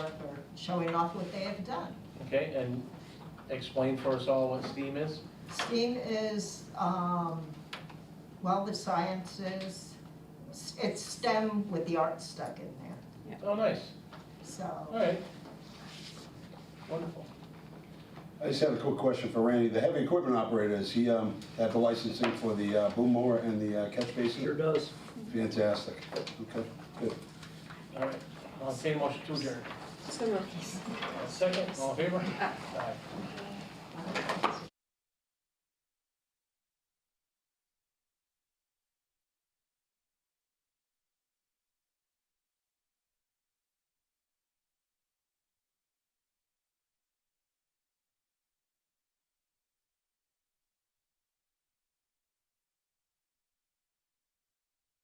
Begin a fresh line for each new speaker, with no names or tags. showing off what they have done.
Okay, and explain for us all what STEAM is?
STEAM is, um, well, the sciences, it's STEM with the art stuck in there,
Oh, nice, all
so.
right. Wonderful.
I just have a quick question for Randy. The heavy equipment operator, is he um, have the licensing for the uh, boom mower and the uh, catch basin?
Sure does.
Fantastic. Okay, good.
All right, I'll take a motion to adjourn.
So moved.
Second, all in favor? Aye.